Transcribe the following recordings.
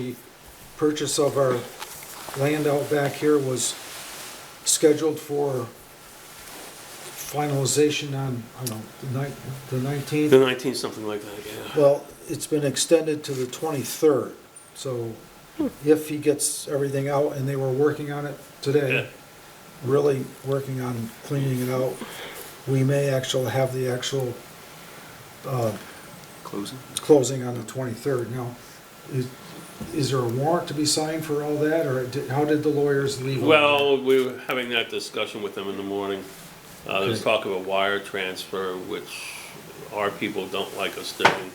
The purchase of our land out back here was scheduled for finalization on, I don't know, the ninth- the The 19th. 19th, something like that, yeah. Well, it's been extended to the 23rd, so if he gets everything out, and they were working on it Yeah. today, really working on cleaning it out, we may actually have the actual uh, Closing? closing on the 23rd. Now, is- is there a warrant to be signed for all that, or did- how did the lawyers leave? on that? Well, we were having that discussion with them in the morning. Uh, there was Okay. talk of a wire transfer, which our people don't like us doing.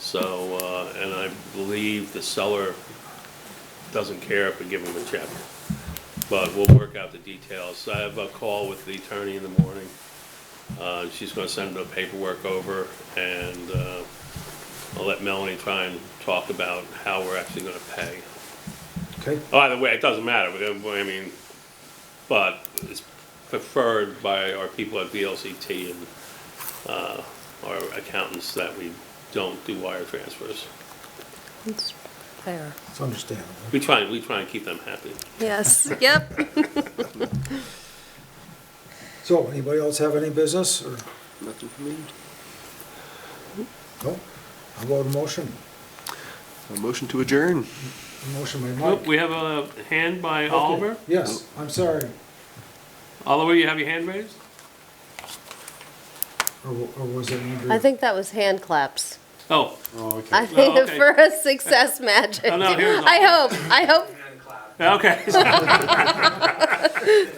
So, uh, and I believe the seller doesn't care if we give him the check. But we'll work out the details. I have a call with the attorney in the morning. Uh, she's gonna send the paperwork over and, uh, I'll let Melanie try and talk about how we're actually gonna pay. Okay, Either way, it doesn't matter, but, um, I mean, but it's preferred by our people at VLCT and, uh, our accountants that we don't do wire transfers. It's fair. it's understandable. We try, and we try and keep them happy. Yes, yep. So, anybody else have any business, or? Nothing for me. No? How about a motion? A motion to adjourn. A motion by Nope, Mike? we have a hand by Oliver. Yes, I'm sorry. Oliver, you have your hand raised? Or or was it Andrew? I think that was hand claps. Oh, I think okay. for a success magic. Oh, no, here's I hope, I hope,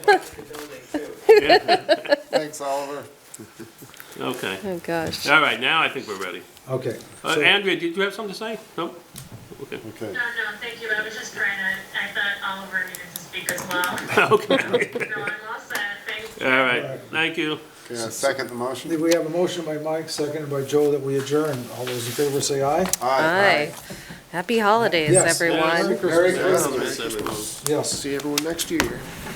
okay. Thanks, Oliver. Okay, oh gosh. all right, now I think we're ready. Okay. Uh, so- Andrea, did you have something to say? Nope? Okay. Okay. No, no, thank you. I was just trying to, I thought Oliver needed to speak as well. Okay, No, I'm all set. Thanks. all right, thank you. Okay, I second the motion. We have a motion by Mike, seconded by Joe, that we adjourn. All those in favor say aye? Hi. Happy holidays, Yes. everyone. Merry Merry Christmas. Christmas. Yes, everyone. Yes. See everyone next year.